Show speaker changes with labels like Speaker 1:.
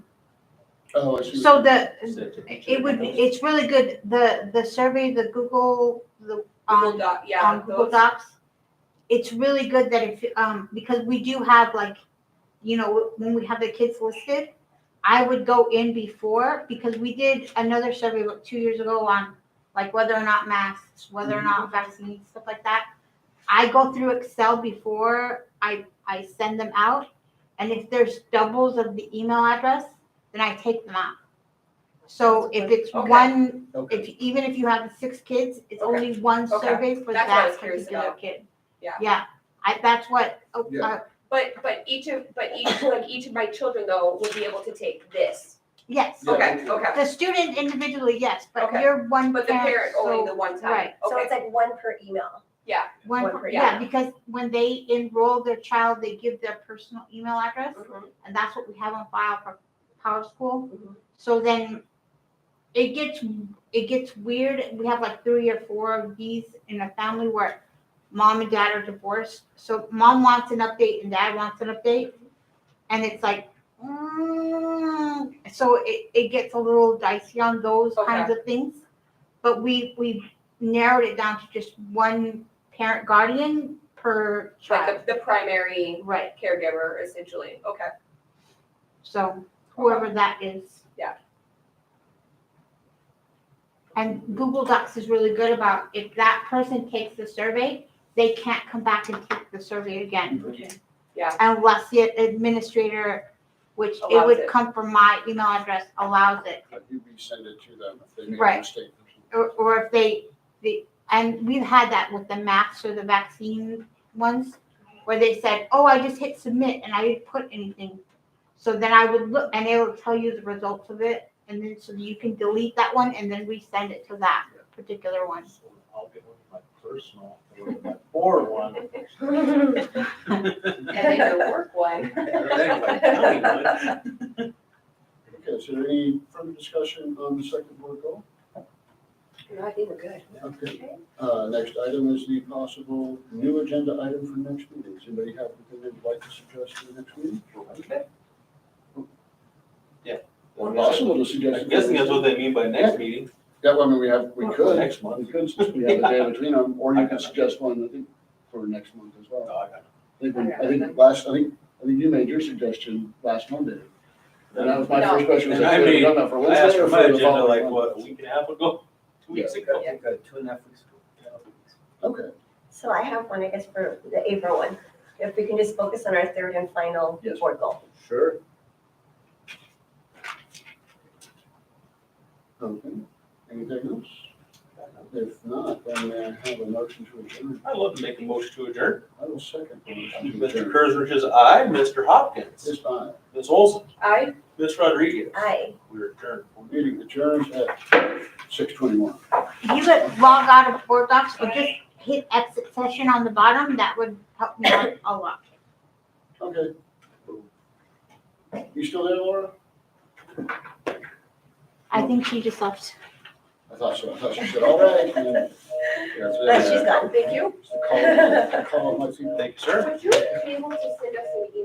Speaker 1: Oh, I see. what
Speaker 2: So
Speaker 1: you-
Speaker 2: the, it
Speaker 3: It
Speaker 2: would, be it's really good, the, the survey, the Google, the,
Speaker 4: Google
Speaker 2: um,
Speaker 4: Doc, yeah.
Speaker 2: on Google
Speaker 4: those-
Speaker 2: Docs. It's really good that if, um, because we do have like, you know, when we have the kids listed, I would go in before, because we did another survey like two years ago on like whether or not masks, whether or
Speaker 4: Mm-hmm.
Speaker 2: not vaccines, stuff like that. I go through Excel before I, I send them out, and if there's doubles of the email address, then I take them out. So if it's
Speaker 4: Okay.
Speaker 2: one
Speaker 1: Okay.
Speaker 2: if, even if you have six kids, it's
Speaker 4: Okay.
Speaker 2: only one
Speaker 4: Okay.
Speaker 2: survey for
Speaker 4: That's what I
Speaker 2: that
Speaker 4: was curious
Speaker 2: particular
Speaker 4: about.
Speaker 2: kid.
Speaker 4: Yeah.
Speaker 2: Yeah, I, that's what, oh,
Speaker 1: Yeah.
Speaker 2: uh,
Speaker 4: But, but each of, but each, like, each of my children though will be able to take this.
Speaker 2: yes,
Speaker 1: Yeah.
Speaker 4: Okay, okay.
Speaker 2: the student individually, yes, but
Speaker 4: Okay.
Speaker 2: you're one
Speaker 4: But the
Speaker 2: parent,
Speaker 4: parent only the
Speaker 2: so,
Speaker 4: one time.
Speaker 2: right.
Speaker 5: So
Speaker 4: Okay,
Speaker 5: it's like one per email.
Speaker 2: one,
Speaker 5: one
Speaker 2: per-
Speaker 5: per-
Speaker 2: yeah, because when they enroll their child, they give their personal email address,
Speaker 4: Mhm.
Speaker 2: and that's what we have on file for Power School.
Speaker 4: Mhm.
Speaker 2: So then it gets, it gets weird, we have like three or four of these in a family where mom and dad are divorced. So mom wants an update and dad wants an update. And it's like, mm, so it, it gets a little dicey on those kinds of things. But we, we narrowed it down to just one parent guardian per child.
Speaker 4: like the, the primary
Speaker 2: Right.
Speaker 4: caregiver essentially, okay.
Speaker 2: So whoever that is.
Speaker 4: Yeah.
Speaker 2: And Google Docs is really good about if that person takes the survey, they can't come back and take the survey again.
Speaker 4: Yeah.
Speaker 2: Unless the administrator, which it
Speaker 4: Allows
Speaker 2: would
Speaker 4: it.
Speaker 2: come from my email address, allows it.
Speaker 1: Have you resend it to them if they make a
Speaker 2: Right.
Speaker 1: mistake?
Speaker 2: Or, or if they, the, and we've had that with the masks or the vaccine ones, where they said, oh, I just hit submit and I didn't put anything. So then I would look, and it'll tell you the results of it, and then, so you can delete that one and then resend it to that particular one.
Speaker 3: I'll get one of my personal, one of my poor one.
Speaker 4: And then the work one.
Speaker 3: Anyway,
Speaker 1: Okay, is there any further discussion on the second board goal?
Speaker 4: No, I think we're good.
Speaker 1: Okay. Uh, next item is the possible new agenda item for next meeting. Does anybody have anything they'd like to suggest for the next meeting? Or possible to suggest.
Speaker 3: I'm guessing that's what they mean by next meeting.
Speaker 1: Yeah, well, I mean, we have, we could,
Speaker 3: Next month.
Speaker 1: we could, since we have a day between them, or you can suggest one, I think, for next month as well.
Speaker 3: No, I got
Speaker 1: I think, we- I think last, I think, I think you made your suggestion last Monday. And that was my first question, was
Speaker 3: And I
Speaker 1: like, should we
Speaker 3: made-
Speaker 1: have done that for
Speaker 3: it. I asked
Speaker 1: Wednesday
Speaker 3: for
Speaker 1: or
Speaker 3: my
Speaker 1: for the
Speaker 3: agenda like,
Speaker 1: following
Speaker 3: what, a
Speaker 1: Monday?
Speaker 3: week and a half ago? Two weeks ago?
Speaker 6: I think, uh, two and a half weeks ago.
Speaker 1: Okay,
Speaker 5: So I have one, I guess, for the April one. If we can just focus on our third and final
Speaker 1: Yes.
Speaker 5: board goal.
Speaker 6: Sure.
Speaker 1: okay, anything else? If not, then may I have a motion to adjourn?
Speaker 3: I'd love to make a motion to adjourn.
Speaker 1: I will second. the motion to
Speaker 3: Mr.
Speaker 1: adjourn.
Speaker 3: Kersrich is aye, Mr. Hopkins,
Speaker 1: This time,
Speaker 3: Ms. Olson,
Speaker 4: I
Speaker 3: Ms. Rodriguez.
Speaker 5: Aye.
Speaker 3: We're adjourned.
Speaker 1: meeting adjourns at six twenty-one.
Speaker 2: You could log out of Board Docs or just hit exit session on the bottom, that would help me out a lot.
Speaker 1: Okay. You still there, Laura?
Speaker 2: I think she just left.
Speaker 1: I thought so, I thought she said, all right. and then-
Speaker 5: But she's gone.
Speaker 4: Thank you.
Speaker 1: It's the Call, call, my team.
Speaker 3: Thank you, sir.
Speaker 4: Would you be able to send us an email